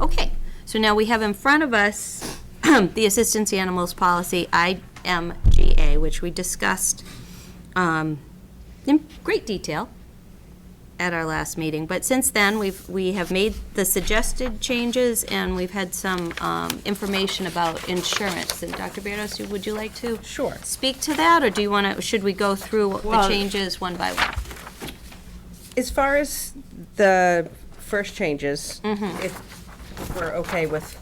Okay, so now we have in front of us the assistance to animals policy, IMGA, which we discussed um, in great detail at our last meeting. But since then, we've, we have made the suggested changes, and we've had some um, information about insurance. And Dr. Berdos, you- would you like to? Sure. Speak to that, or do you want to, should we go through the Well- changes one by one? As far as the first changes, Mm-hmm. if we're okay with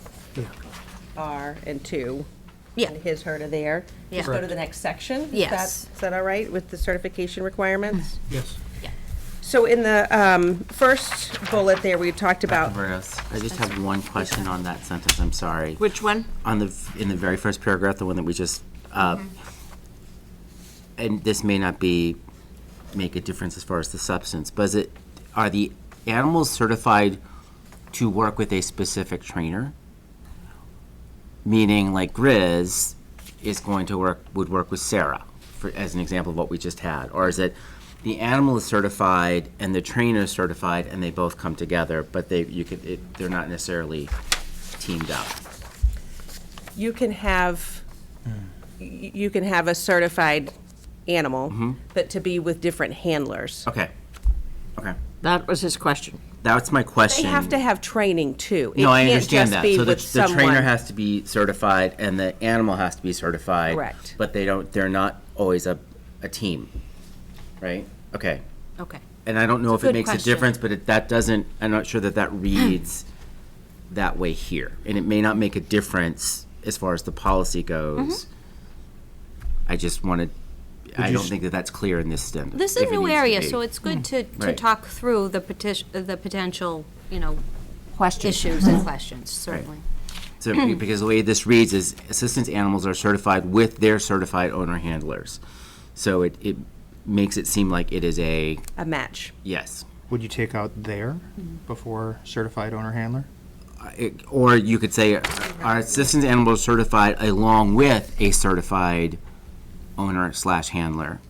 R and two. Yeah. And his, her, to there. Just Yeah. go to the next section? Is that- Yes. Is that all right with the certification requirements? Yes. So in the um, first bullet there, we talked about, Roberts, I just have one question on that sentence, I'm sorry. Which one? On the, in the very first paragraph, the one that we just, uh, and this may not be, make a difference as far as the substance, but is it, are the animals certified to work with a specific trainer? Meaning like Grizz is going to work, would work with Sarah, for, as an example of what we just had? Or is it the animal is certified and the trainer is certified and they both come together, but they, you could, it, they're not necessarily teamed up? you can have, y- you can have a certified Mm-hmm. animal, but to be with different handlers. Okay, okay. That was his question. That's my question. They have to have training too. It No, I can't just understand that. be So the, with the trainer someone. has to be certified and the animal has to be certified. Correct. But they don't, they're not always a, a team, right? Okay. Okay. And I don't know if Good it makes a question. difference, but it, that doesn't, I'm not sure that that reads that way here. And it may not make a difference as far as the policy goes. Mm-hmm. I just wanted, I you don't s- think that that's clear in this standard. This is a new area, so it's good to, to Right. talk through the petition, the potential, you know, issues and questions, certainly. So, be- because the way this reads is assistance animals are certified with their certified owner handlers. So it, it makes it seem like it is a, A match. yes. Would you take out there before certified owner handler? Uh, it- Or you could say, uh, our assistance animals certified along with a certified owner slash handler.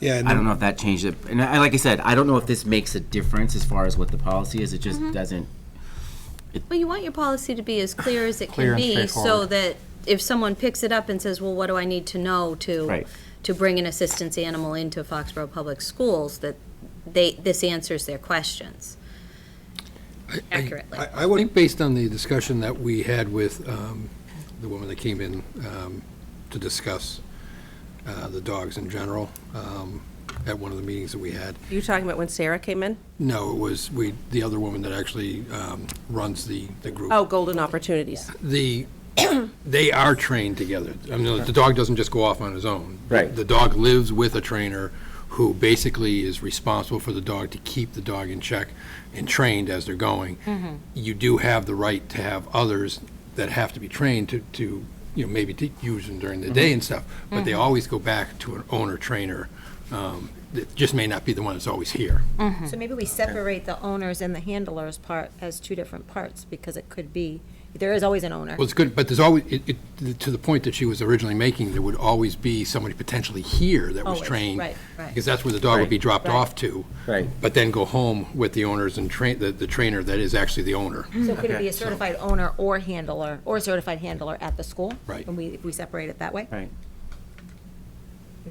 Yeah, and I don't then know if that changed it, and I, like I said, I don't know if this makes a difference as far as what the policy is, it just doesn't. Well, you want your policy to be as clear as it Clear can and be, so straightforward. that if someone picks it up and says, well, what do I need to know to? Right. To bring an assistance animal into Foxborough Public Schools, that they, this answers their questions accurately. I I would think based on the discussion that we had with um, the woman that came in um, to discuss uh, the dogs in general um, at one of the meetings that we had. You talking about when Sarah came in? No, it was we, the other woman that actually um, runs the, the group. Oh, golden opportunities. The, they are trained together. I mean, the dog doesn't just go off on his own. Right. The dog lives with a trainer who basically is responsible for the dog to keep the dog in check and trained as they're going. You do have the right to have others that have to be trained to, to, you know, maybe to use them during the day and stuff, but they always go back to an owner trainer. um, that just may not be the one that's always here. So maybe we separate the owners and the handlers part as two different parts, because it could be, there is always an owner. Well, it's good, but there's always, it, it, to the point that she was originally making, there would always be somebody potentially here that was Always, trained. right, right. Because that's where the dog would be dropped off to. Right. But then go home with the owners and train, the, the trainer that is actually the owner. So could it be a certified owner or handler, or a certified handler at the school? Right. When we, if we separate it that way? Right.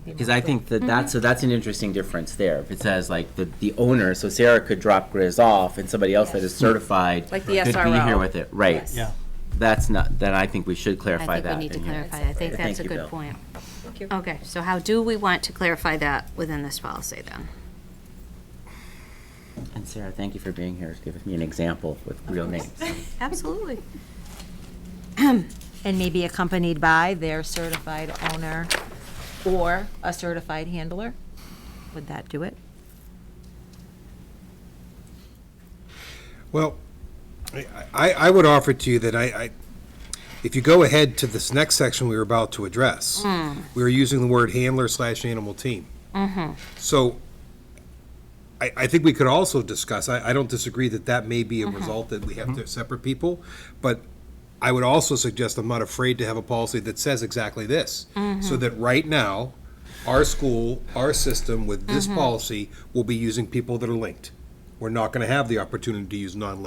Because I think that Mm-hmm. that's, so that's an interesting difference there. If it says like the, the owner, so Sarah could drop Grizz off and somebody else that is certified. Like the Could be here SRO. with it, right. Yes. Yeah. That's not, then I think we should I clarify think we that. need to in here. clarify, I think Thank that's a you, good Bill. point. Thank you. Okay, so how do we want to clarify that within this policy, then? And Sarah, thank you for being here, giving me an example with real names. Absolutely. And maybe accompanied by their certified owner or a certified handler? Would that do it? Well, I- I, I would offer to you that I, I, if you go ahead to this next section we were about to address, we were using the word handler slash animal team. So I, I think we could also discuss, I, I don't disagree that that may be a result that we have to separate people, but I would also suggest, I'm not afraid to have a policy that says exactly this. So that right now, our school, our system with this policy will be using people that are linked. we're not gonna have the opportunity to use non-language